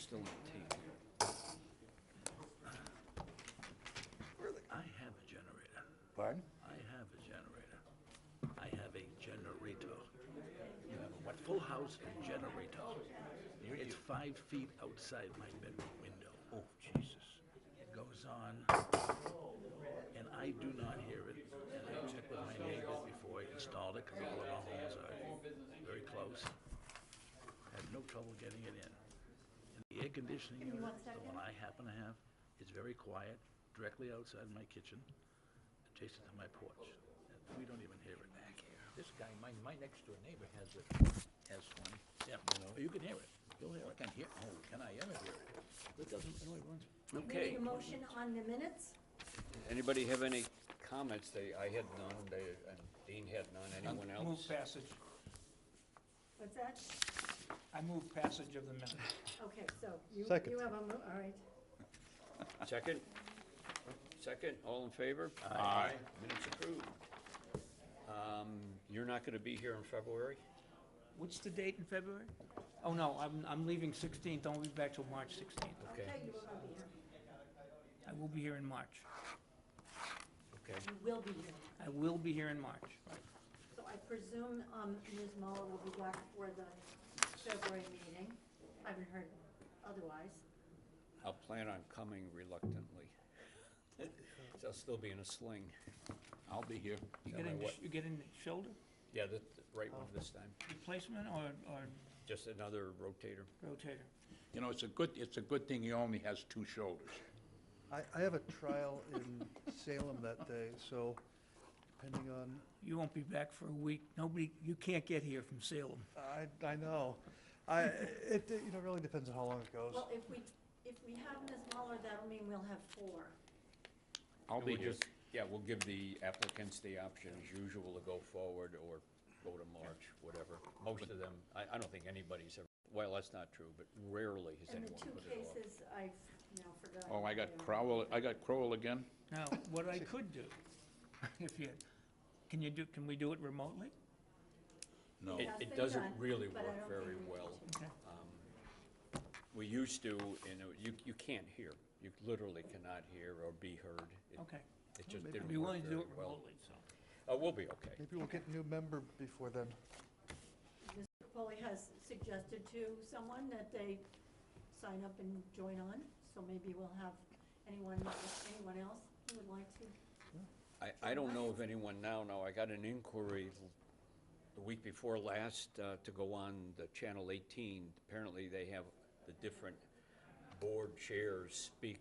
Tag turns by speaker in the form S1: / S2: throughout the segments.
S1: still on tape here.
S2: I have a generator.
S3: Pardon?
S2: I have a generator. I have a generator. You have a what? Full house and generator. It's five feet outside my bedroom window.
S3: Oh, Jesus.
S2: It goes on, and I do not hear it. And I checked with my neighbors before I installed it, because all of our homes are very close. Had no trouble getting it in. And the air conditioning unit, the one I happen to have, is very quiet, directly outside my kitchen, adjacent to my porch. And we don't even hear it.
S4: This guy, my, my next door neighbor has a, has one.
S2: Yeah, you can hear it. You'll hear it. I can hear, oh, can I ever hear it?
S1: It doesn't really run.
S5: We
S1: Okay.
S5: need a motion on the minutes?
S1: Anybody have any comments? They, I had none, they, and Dean had none, anyone
S6: I
S1: else?
S6: Move passage.
S5: What's that?
S6: I move passage of the minutes.
S5: Okay, so you,
S3: Second.
S5: you have a, mo- all right.
S1: Second? Second, all in favor? Aye. Minutes approved. Um, you're not gonna be here in February?
S6: What's the date in February? Oh, no, I'm, I'm leaving 16th, I'll be back till March 16th.
S1: Okay,
S5: Okay, you will not be here.
S6: I will be here in March.
S1: okay.
S5: You will be here.
S6: I will be here in March.
S5: So I presume, um, Ms. Muller will be back for the February meeting. I haven't heard otherwise.
S1: I'll plan on coming reluctantly. So I'll still be in a sling.
S2: I'll be here.
S6: You
S1: Yeah,
S6: getting,
S1: my what-
S6: you getting shoulder
S1: Yeah, the, the right
S5: Oh.
S1: one this time,
S6: replacement or, or
S1: just another rotator.
S6: rotator?
S2: You know, it's a good, it's a good thing he only has two shoulders.
S7: I, I have a trial in Salem that day, so depending on,
S6: You won't be back for a week. Nobody, you can't get here from Salem.
S7: I, I know. I, it, you know, really depends on how long it goes.
S5: Well, if we, if we have Ms. Muller, that'll mean we'll have four.
S2: I'll
S1: And
S2: be
S1: we'll
S2: here.
S1: just- Yeah, we'll give the applicants the option as usual to go forward or go to March, whatever. Most of them, I, I don't think anybody's ever, well, that's not true, but rarely has
S5: And the
S1: anyone
S5: two
S1: put it off.
S5: cases, I've now forgotten.
S2: Oh, I got
S5: Yeah.
S2: Crowell, I got Crowell again?
S6: Now, what I could do, if you, can you do, can we do it remotely?
S2: No.
S1: It,
S5: Has
S1: it
S5: been
S1: doesn't
S5: done,
S1: really
S5: but I
S1: work
S5: don't
S1: very
S5: think we
S1: well.
S6: Okay.
S1: Um, We used to, and it- you, you can't hear. You literally cannot hear or be heard. It-
S6: Okay.
S1: It just
S7: maybe
S1: didn't work
S6: I'd be willing to do it
S1: very well.
S6: remotely, so.
S1: Uh, we'll be okay.
S7: Maybe we'll get a new member before then.
S5: Mr. Capoli has suggested to someone that they sign up and join on, so maybe we'll have anyone, anyone else who would like to.
S1: I, I don't know of anyone now, no, I got an inquiry l- the week before last uh, to go on the Channel 18. Apparently, they have the different board chairs speak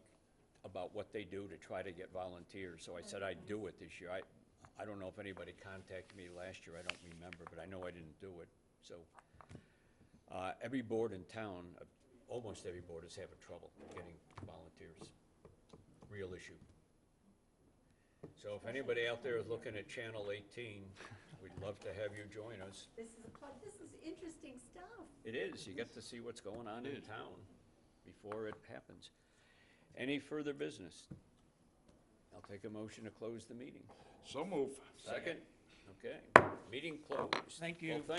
S1: about what they do to try to get volunteers, so I said I'd do it this year. I, I don't know if anybody contacted me last year, I don't remember, but I know I didn't do it, so. uh, Every board in town, uh, almost every board is having trouble getting volunteers, real issue. So if anybody out there is looking at Channel 18, we'd love to have you join us.
S5: This is a, pl- this is interesting stuff.
S1: It is, you get to see what's going on in town before it happens. Any further business? I'll take a motion to close the meeting.
S2: So move.
S1: Second? Okay, meeting closed.
S6: Thank
S1: Well,
S6: you.